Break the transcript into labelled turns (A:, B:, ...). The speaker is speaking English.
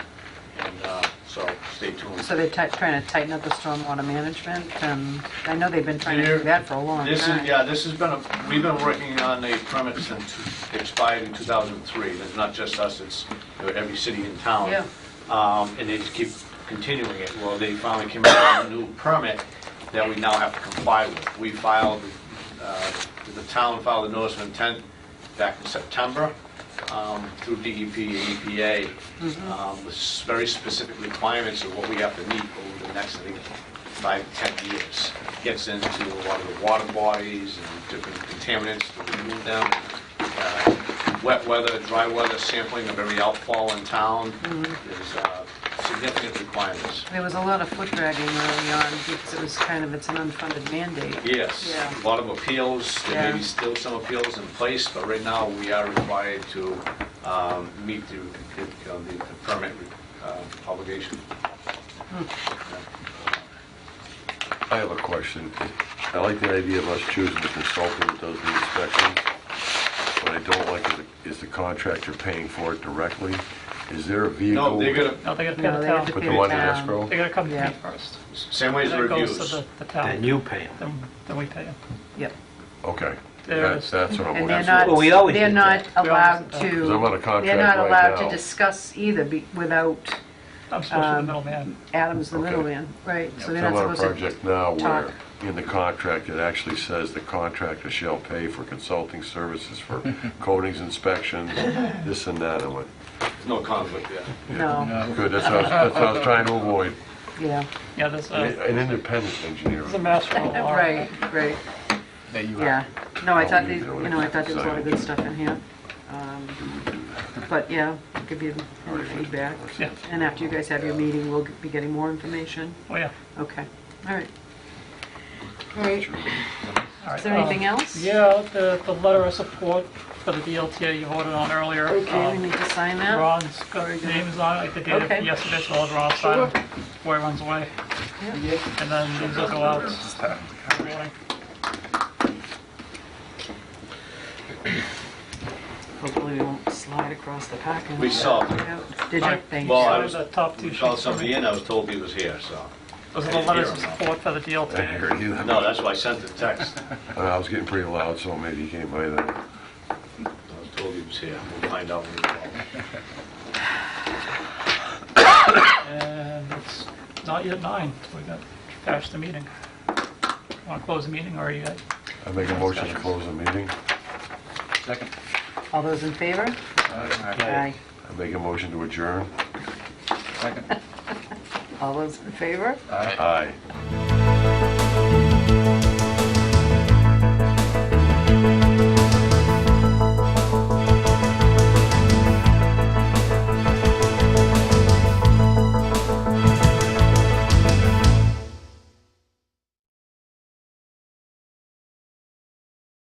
A: speak to them.
B: So they're ti- trying to tighten up the stormwater management, and I know they've been trying to
A: Here.
B: do that for a long
A: This is,
B: time.
A: yeah, this has been, a- we've been working on the permit since it expired in 2003. It's not just us, it's you know, every city in town.
B: Yeah.
A: Um, And they just keep continuing it. Well, they finally came out with a new permit that we now have to comply with. We filed, uh, the town filed a notice of intent back in September um, through DEP and EPA um, with s- very specific requirements of what we have to meet over the next, I think, five, 10 years. Gets into a lot of the water bodies and different contaminants to remove them. Uh, Wet weather, dry weather, sampling of every outfall in town. There's uh, significant requirements.
B: There was a lot of foot dragging early on, because it was kind of, it's an unfunded mandate.
A: Yes, a
B: Yeah.
A: lot of appeals, there may be
B: Yeah.
A: still some appeals in place, but right now, we are required to um, meet the uh, the permit uh, obligation.
C: I have a question. I like the idea of us choosing the consultant that does the inspection. What I don't like is- is the contractor paying for it directly. Is there a
A: No,
C: vehicle?
A: they're gonna,
D: No, they gotta pay
B: No,
D: the
B: they have
D: town.
B: to
C: Put
B: pay
C: the one in
B: town.
C: escrow?
D: They gotta come to
B: Yeah.
D: me first.
A: same way as the
D: Then it goes to
A: reviews.
D: the- the town.
E: Then you pay them.
D: Then then we pay them.
B: Yep.
C: Okay.
D: There
C: That's,
D: is.
C: that's what I'm
B: And
C: looking
B: they're
C: for.
E: Well, we
B: not,
E: always
B: they're
E: did
B: not
D: that. We always
B: allowed
D: did that.
B: to,
C: 'Cause I'm on a
B: they're
C: contract
B: not
C: right
B: allowed to
C: now.
B: discuss either be- without
D: I'm supposed to be
B: Um,
D: the middleman.
B: Adam's the
C: Okay.
B: middleman, right? So they're
C: I'm on a
B: not supposed to.
C: project now
B: talk.
C: where in the contract, it actually says the contractor shall pay for consulting services for coatings inspections, this and that. I went,
A: No conflict, yeah.
B: No,
C: good, that's what I was, that's what I was trying to avoid.
B: yeah,
D: Yeah, there's
B: Oh.
D: a,
C: An independent engineer.
D: there's a master of law.
B: right, right,
F: that you
B: yeah. No, I
C: Oh,
B: thought,
C: you
B: they-
C: know
B: you know, I thought there was a lot of good stuff in here. Um, But, yeah, I'll give you any feedback.
D: Yeah,
B: And after you guys have your meeting, we'll be getting more information.
D: well, Oh, yeah.
B: Okay, all right. All right,
D: All
B: is
D: right,
B: there
D: um,
B: anything else?
D: Yeah, the, the letter of support for the DLTA you voted on earlier.
B: Okay,
D: um,
B: we need to sign that.
D: Ron's got names on it, like the date
B: Okay.
D: of yesterday, so I'll have Ron sign it. Boy runs away. And then these will go out. in the morning.
B: Hopefully we won't slide across the parking.
A: We
B: lot.
A: saw,
B: Yeah. Did you? Thank
A: Well,
B: you.
A: I
D: So
A: was-
D: the top two
A: we called
D: sheets.
A: somebody in, I was told he was here, so.
D: Those are the letters of support for the
C: I
D: DLTA.
C: heard you.
A: No, that's why I sent the text.
C: Uh, I was getting pretty loud, so maybe he came by then.
A: I was told he was here, we'll find out when we call.
D: And it's not yet nine, so we got past the meeting. Want to close the meeting, or are you at
C: I make a motion to close the meeting.
F: Second.
B: All those in favor? Aye.
C: I make a motion to adjourn.
F: Second.
B: All those in favor?
C: Aye.